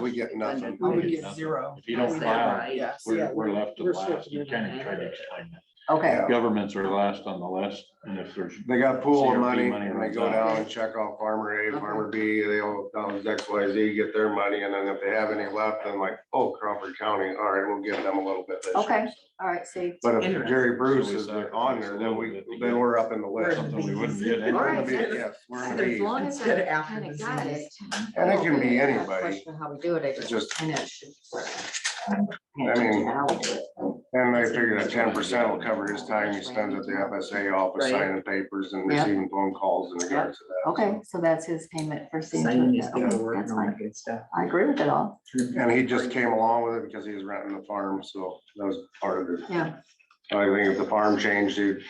We get nothing. We would We get zero. If you Is don't that file, right? Yes. we're, yeah. we're left to We're last. You sort of kind of middle. try to explain that. Okay, Yeah. Governments are last on the list, and if there's, They got a pool CRP of money money and they runs go out. down and check off farmer A, Okay. farmer B, they all down to X, Y, Z, get their money. And then if they have any left, then like, oh, Crawford County, all right, we'll give them a little bit. this year. Okay. all right, see. But if Interesting. Jerry Bruce So we is on sacrifice a there, then little we, bit to then get- we're up in the We're list. in something we wouldn't the get bees. anyway. We're gonna be- Alright. yes, we're gonna As be- long as Instead I of after kind the of got it. disease. And it can be I have a anybody. question How we do it, I It's just. just- and it should- I mean, How we do it. And they figure that ten percent will cover his time he spends at the FSA office Right. signing papers and Yep. Oh, receiving phone calls in regards to that. Okay, so that's his payment for seeing Signing to is it. gonna Okay, work That's and all that fine. good stuff. I agree with it all. And he just came along with it because he was renting the farm, so that was part of it. Yeah. I think if the farm changed, it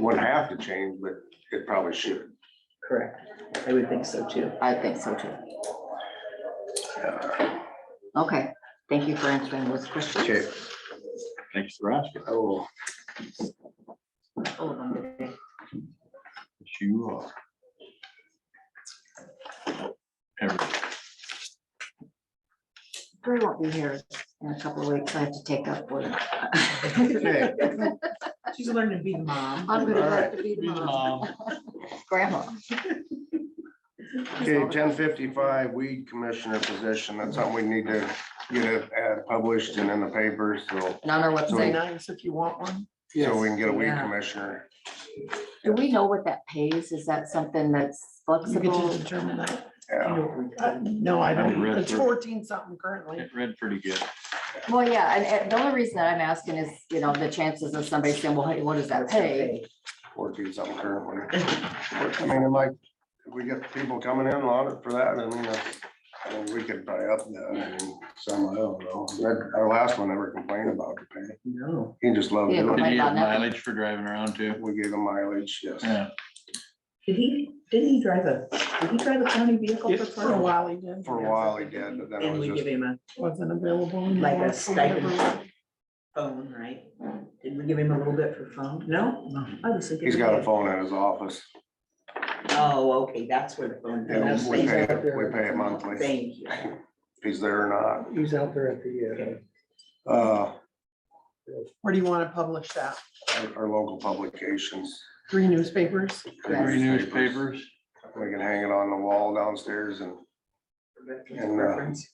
wouldn't have to change, but it probably should. Correct. I would think so too. I think so too. Okay, thank you for answering those Okay, questions. thanks for asking. oh, Hold on a minute. It's You are. Every- Gary won't be here in a couple of weeks. I have to take up work. okay, She's learning to be the mom. I'm gonna have Alright. to be the mom. Grandma. okay, ten fifty-five weed commissioner position, that's something we need to get it uh, published and in the paper, so, And on our Say website, nice if you want one. so we can get a weed Yeah. commissioner. do we know what that pays? Is that something that's You get to flexible? determine that. You Yeah, know, uh, No, I Haven't don't. read It's through. fourteen something currently. It read pretty good. Well, yeah, and, and the only reason that I'm asking is, you know, the chances of somebody saying, well, hey, what does that pay? fourteen something currently. I mean, and like, if we get people coming in on it for that, I mean, uh, I mean, we could buy up that, I mean, some, I don't know. That- Our last one never complained about the pay, No. he just loved Yeah, doing Did Might you have not know. mileage for driving around it. too? We gave him mileage, yes. Yeah, Did he, didn't he drive a, did he drive a county vehicle for? for a while he did. For a while he did, but then it And was we give just, him a. Wasn't available. Like a stipend. Phone, right? Did we give him a little bit for phone? No? I was thinking he's we got a did. phone at his office. Oh, okay, that's where the phone. Yeah, that's we the- pay, it- we pay it monthly, Thank you. if he's there or He's out there at the, not. Uh, Where do you want to publish that? our- our local publications. Three newspapers? three newspapers. We can hang it on the wall downstairs and, And, uh, Reference.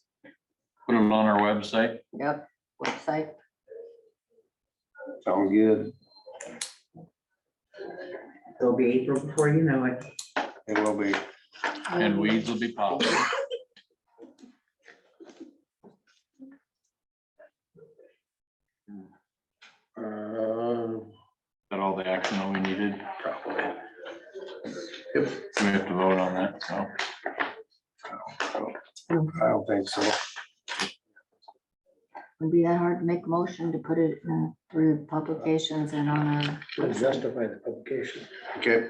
Put them on our website. Yep, website. sound good, It'll be April before you know it. it will be. And weeds will be popping. Uh, Got all the action that we needed. probably. We have to vote on that, so. I don't think so. It'd be that hard to make a motion to put it in through publications and on our. uh, justify the publication. Okay.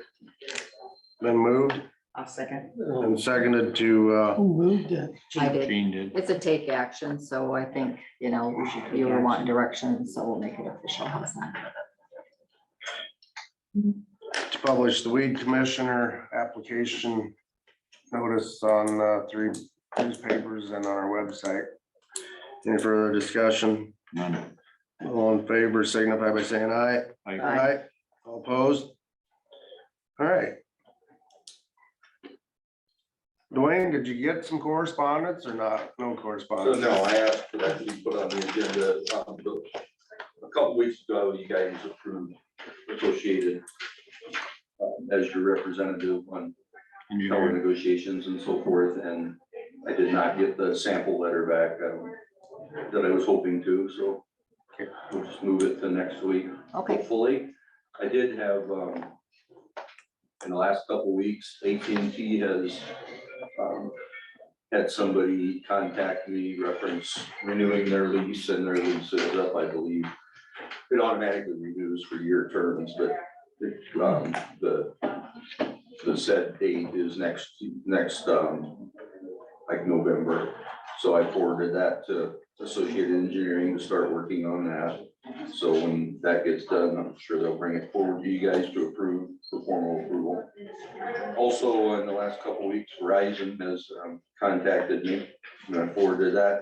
Been moved I'll second. and seconded to, uh, Who moved it? I did. Gene did. It's a take action, so I think, you know, we should, you were wanting direction, so we'll make it official. How's that? to publish the weed commissioner application notice on, uh, three newspapers and on our website. Any further discussion? None. All in favor, signify by saying aye. I- Aye. All opposed? All right. Dwayne, did you get some correspondence or not? No So correspondence? no, I asked for that to be put on the agenda, um, but a couple weeks ago, you guys approved associated um, as your representative on Can you power hear? negotiations and so forth, and I did not get the sample letter back um, that I was hoping to, so we'll just move it to next week Okay, hopefully. I did have, um, in the last couple weeks, AT&T has, um, had somebody contact me reference renewing their lease and their lease is up, I believe. It automatically renews for year terms, but, it, um, the, the set date is next, next, um, like November. So I forwarded that to Associated Engineering to start working on that. So when that gets done, I'm sure they'll bring it forward to you guys to approve, for formal approval. Also, in the last couple of weeks, Verizon has um, contacted me, and I forwarded that